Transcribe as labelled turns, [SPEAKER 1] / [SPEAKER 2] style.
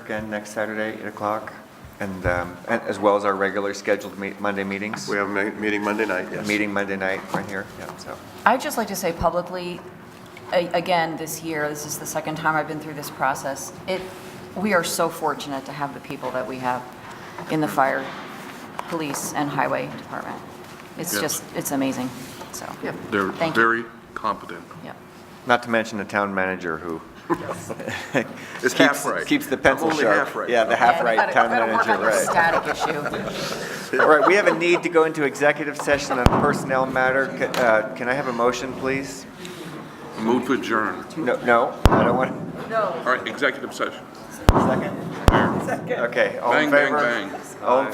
[SPEAKER 1] again next Saturday, 8 o'clock, and, um, and as well as our regular scheduled meet- Monday meetings.
[SPEAKER 2] We have a ma- meeting Monday night, yes.
[SPEAKER 1] Meeting Monday night right here, yeah, so.
[SPEAKER 3] I'd just like to say publicly, a- again, this year, this is the second time I've been through this process, it, we are so fortunate to have the people that we have in the fire, police, and highway department. It's
[SPEAKER 4] Yes.
[SPEAKER 3] just, it's amazing, so.
[SPEAKER 4] They're
[SPEAKER 3] Thank you.
[SPEAKER 4] very competent.
[SPEAKER 3] Yep.
[SPEAKER 1] Not to mention the town manager who. keeps-
[SPEAKER 4] It's half right.
[SPEAKER 1] Keeps the pencil
[SPEAKER 2] Only
[SPEAKER 1] sharp.
[SPEAKER 2] half right.
[SPEAKER 1] Yeah, the half right town manager, right.
[SPEAKER 3] Static issue.
[SPEAKER 1] All right, we have a need to go into executive session on personnel matter. C- uh, Can I have a motion, please?
[SPEAKER 4] Move to adjourn.
[SPEAKER 1] No, no, I don't want,
[SPEAKER 4] All right, executive session.
[SPEAKER 1] second? Okay, all in
[SPEAKER 4] Bang, bang,
[SPEAKER 1] favor?
[SPEAKER 4] bang.
[SPEAKER 1] All in